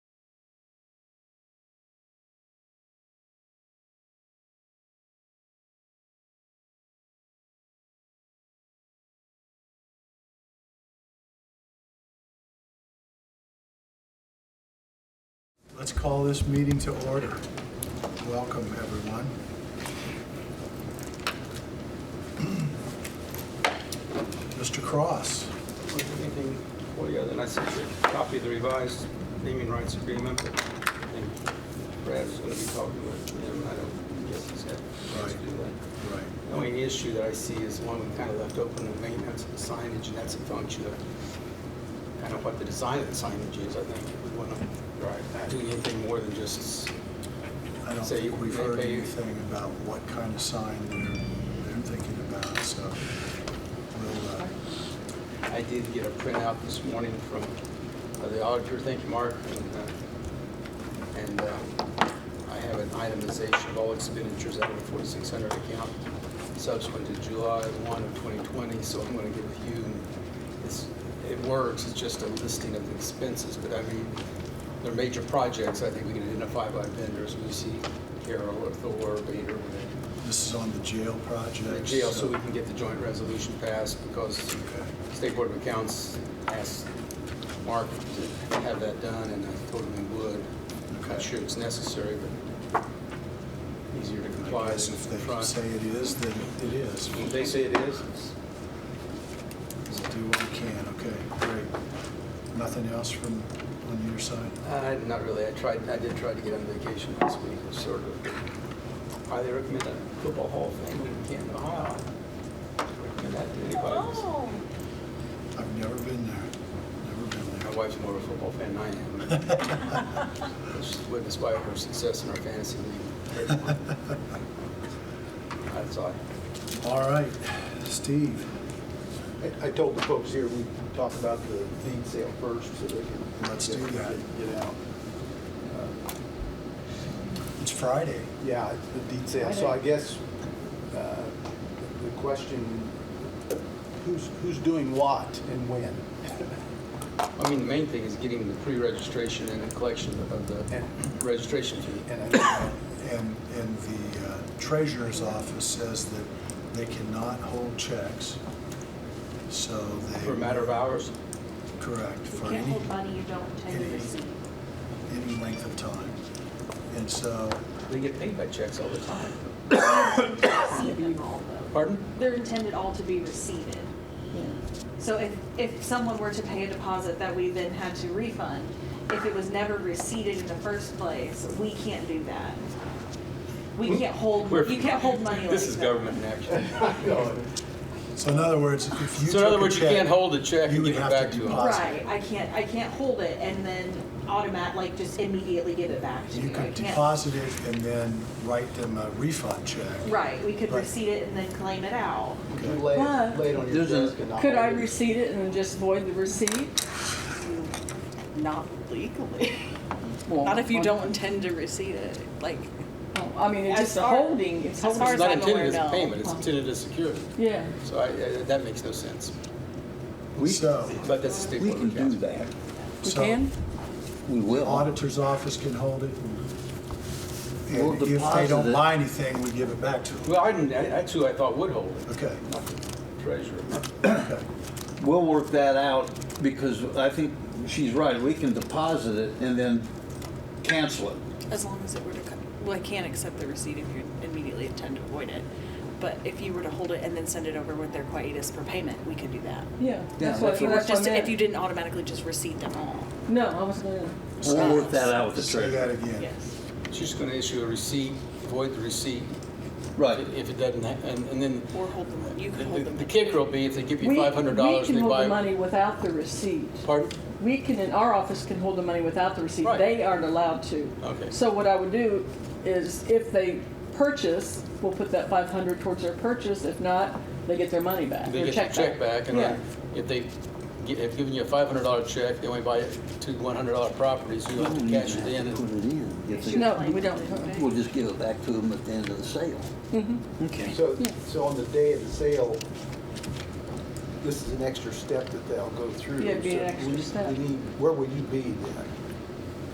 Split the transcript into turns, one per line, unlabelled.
Let's call this meeting to order. Welcome, everyone. Mr. Cross,
anything for you, then I sent you a copy of the revised naming rights agreement, but I think Brad's gonna be talking with him, I don't guess he's had a chance to do that.
right,
The only issue that I see is one we kind of left open, the maintenance of the signage, and that's a function of kind of what the design of the signage is, I think, we wanna do anything more than just,
I don't
So you-
think we've
they
heard
pay you-
anything about what kind of sign they're, they're thinking about, so we'll, uh,
I did get a printout this morning from uh, the auditor, thank you, Mark, and, uh, and uh, I have an itemization of all expenditures out of the 4600 account subsequent to July 1 of 2020, so I'm going to give you, it's, it works, it's just a listing of the expenses, but I mean, they're major projects, I think we can identify by vendors, we see Carroll or Thor or Bader, whatever
this is on the jail
the
project.
jail so we can get the joint resolution passed because
Okay.
State Board of Accounts asked Mark to have that done and I told him we would. I'm Not
Okay.
sure it's necessary, but easier to
I
comply
guess
than
if they say
confront.
it is, then it is.
If they say it is, it's-
We'll do what we can, okay, great. Nothing else from, on your side?
uh, not really. I tried, I did try to get on vacation last week, It's sort of. Highly recommend that football hall of fame in Canton, Ohio. Recommend that to anybody. It's-
Oh,
I've never been there,
My
never been
wife's more of a football fan than I am. She's witnessed by her success in our fantasy league.
there.
That's all.
All right, Steve,
I- I told the folks here, we talk about the deed sale first, so they can.
Let's do
get-
that.
Get out. Uh,
it's Friday.
Yeah, it's the deed sale, so I guess uh, the question, who's, who's doing what and when?
I mean, the main thing is getting the pre-registration and the collection of the
And-
registration fee.
And I
And, and the uh, treasurer's office says that they cannot hold checks, so they.
For a matter of hours,
Correct,
you
for
can't
any,
hold money you don't intend
any-
to receive.
any length of time. And so,
they get paid by checks all the time.
Receive them all, though.
Pardon?
They're intended all to be received. So if, if someone were to pay a deposit that we then had to refund, if it was never receipted in the first place, we can't do that. We can't hold,
We're-
you can't hold money like
This is
that.
government in action.
don't know.
so in other words, if you
So in other
took a
words, you
check-
can't hold the check
you
and
would
give it
have to
back to them.
deposit.
Right, I can't, I can't hold it and then automat, like, just immediately give it back to you.
You
I
could
can't-
deposit it and then write them a refund check.
Right, we could
Right.
receipt it and then claim it out.
You Lay it- lay it on your
There's a-
desk and I'll-
Could I receipt it and just void the receipt?
Not legally.
Well,
Not if you
well,
don't intend to receipt it, like,
well, I mean, it's
as
just a
far-
holding, it's
as
holding.
far
It's not
I'm aware,
intended as a
no.
payment, it's intended as security.
Yeah,
So I, I- that makes no sense.
We,
So,
But that's a state
we
board
can
of
do
accounts.
that.
we
so-
can?
We
The
will.
auditor's office can hold it. and-
We'll
And if they
deposit
don't
it.
buy anything, we give it back to them.
Well, I didn't, that's who I thought would hold it,
Okay,
not the treasurer.
okay,
We'll work that out because I think she's right. We can deposit it and then cancel it.
as long as it were to, co- well, I can't accept the receipt if you immediately intend to avoid it. But if you were to hold it and then send it over with their quietus for payment, we could do that.
Yeah. that's
if
what-
If you were
that's what I
just, if
meant.
you didn't automatically just receipt them all.
No, I was gonna,
We'll work that out with the
say that
treasurer.
again.
She's gonna issue a receipt, void the receipt,
Right.
if it doesn't, ha- and, and then
Or hold them, you
The-
could hold
The
them.
the kicker will be if they give
we,
you
we
five hundred dollars,
can
they
hold the
buy.
money without the receipt.
Pardon?
We can, in our office can hold the money without the receipt.
Right.
They aren't allowed to.
Okay.
So what I would do is if they purchase, we'll put that five hundred towards their purchase. If not, they get their money back,
They
their
get your check back and
Yeah.
then if they, gi- if giving you a five hundred dollar check, they only buy two one hundred dollar properties, you have to cash it in.
Put
and-
it in. If they-
No, we don't. Uh-uh.
We'll just give it back to them at the end of the sale. Okay.
So, so on the day of the sale, this is an extra step that they'll go through.
Yeah, it'd be an
So
extra
we-
step.
we need- Where will you be then?